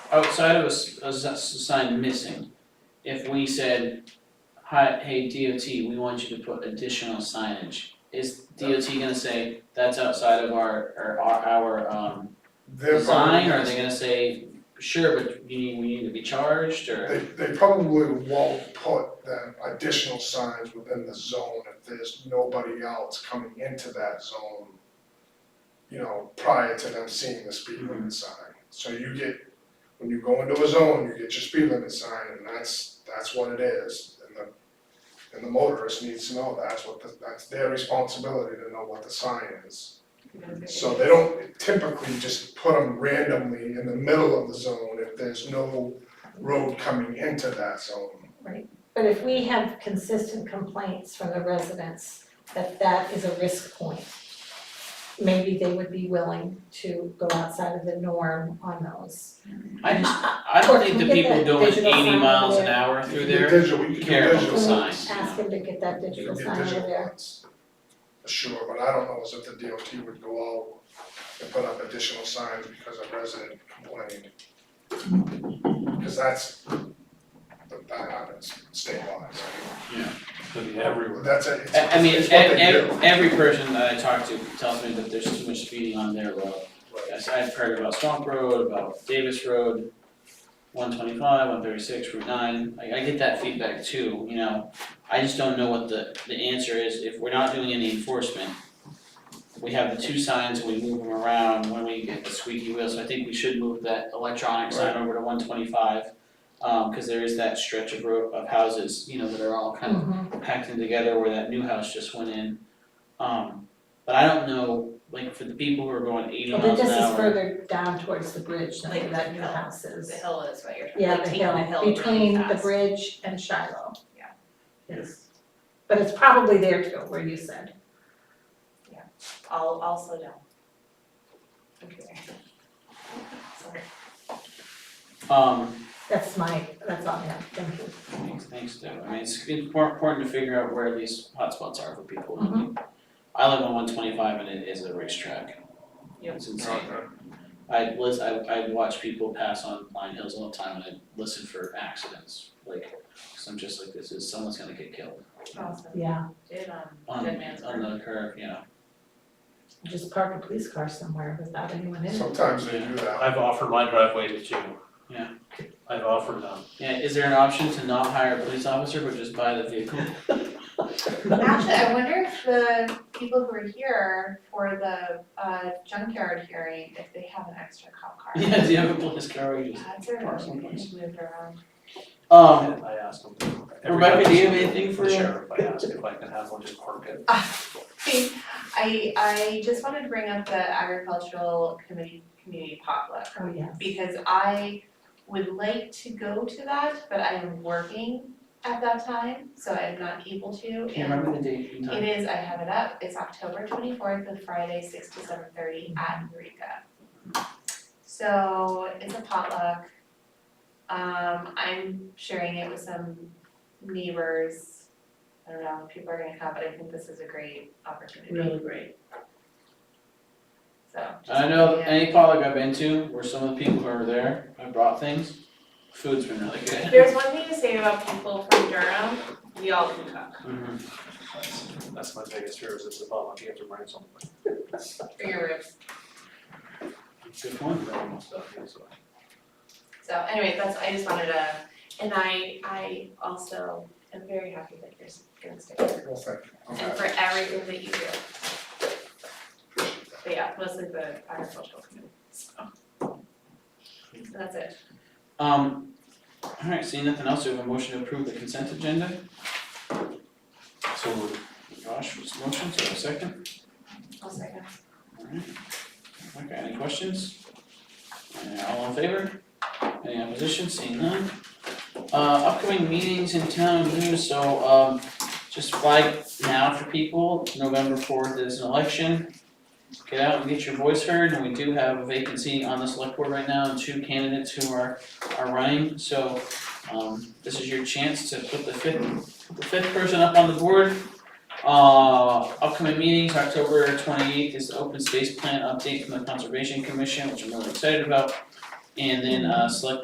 outside of a, s- a s- sign missing, if we said, hi, hey DOT, we want you to put additional signage, is DOT gonna say, that's outside of our, or our, our, um, They're design, or are probably- they gonna say, sure, but you need, we need to be charged, or? They, they probably won't put the additional signs within the zone if there's nobody else coming into that zone, you know, prior to them seeing the speed Mm-hmm. limit sign. So you get, when you go into a zone, you get your speed limit sign, and that's, that's what it is. And the, and the motorist needs to know that's what, the- that's their responsibility to know what the sign is. So they don't typically just put them randomly in the middle of the zone if there's no road coming into that zone. But if we have consistent complaints from the residents that that is a risk point, maybe they would be willing to go outside of the norm on those. I just, I don't Or think can the we get people that doing digital eighty sign miles over an there? hour through You there, can digital, you can care do about digital the signs. signs, you Ask know. them to get that You digital can sign get over digital there. ones. Sure, but I don't know is if the DOT would go out and put up additional signs because a resident complained. Cause that's, that happens statewide, Could be everywhere. that's it, it's, I, I mean, e-, it's ev- what they do. ev- every person that I talk to tells me that there's too much speeding on their road. Right. Yes, I've heard about Swamp Road, about Davis Road, one twenty-five, one thirty-six, Route nine, I I get that feedback too, you know. I just don't know what the the answer is, if we're not doing any enforcement. We have the two signs and we move them around when we get the squeaky wheel, so I think we should move that electronic sign over to one twenty-five. Um, cause there is that stretch of road of houses, you know, that are all kind of Mhm. packed in together where that new house just went in. Um, but I don't know, like for the people who are going eighty Well, but miles an this is hour, further down towards the bridge than where Like that the new hill. house is. The hill is what you're talking Yeah, about, the taking the hill hill, really between the fast. bridge and Shiloh. Yeah. Yes. But it's probably there too, where you said. I'll, I'll slow down. Okay. Sorry. um, That's my, that's all I have, thank you. thanks, thanks, Deb, I mean, it's impor- important to figure out where these hotspots are for people. I Mm-hmm. mean, I live on one twenty-five and it is a racetrack. Yep. It's insane. I lis- I I watch people pass on Pine Hills all the time and I listen for accidents, like, i I'm just like, this is, someone's gonna get killed Awesome. Yeah, Did, um, on good man's work. on the curve, you know. just park a police car somewhere without anyone e-, in it. Sometimes they do that. I've offered my driveway to two. Yeah. I've offered them. Yeah, is there an option to not hire a police officer but just buy the vehicle? Actually, I wonder if the people who are here for the uh junkyard hearing, if they have an extra cop car. Yeah, do you have a police car we just? That's a- Or someplace. moved around. Um, I asked them. Rebecca, do you have anything for- The sheriff, I asked if I could have one just park it. Ah, I I just wanted to bring up the agricultural committee community potluck Oh, yes. because I would like to go to that, but I am working at that time, so I am not able to. Can't remember the date and It time. is, I have it up, it's October twenty-fourth, the Friday, six to seven thirty at Eureka. So it's a potluck. Um, I'm sharing it with some neighbors. I don't know if people are gonna come, but I think this is a great opportunity, great. so. just- I know yeah. any potluck I've been to where some of the people who were there, I brought things, food's been really good. There's one thing to say about people from Durham, we all can cook. Mhm. That's, that's my biggest fear is it's the bomb, you have to bring something. For your ribs. Good point. Bring stuff, yeah, so. So anyway, that's, I just wanted to, and I, I also am very happy that you're s- gonna stay here. Well, thank you. I'm And happy. for everything that you do. But yeah, mostly the agricultural community, so. So that's it. Um, alright, seeing nothing else, we have a motion to approve the consent agenda. So moved. Josh was motion, so a second. I'll second. Alright. Okay, any questions? Uh, all in favor? Any opposition? Seeing none. Uh, upcoming meetings in town news, so, um, just flag now for people, November fourth is an election. Get out and get your voice heard, and we do have a vacancy on the select board right now, and two candidates who are, are running, so, um, this is your chance to put the fifth, the fifth person up on the board. Uh, upcoming meetings, October twenty-eighth is the open space plan update from the Conservation Commission, which I'm really excited about. And then, uh, select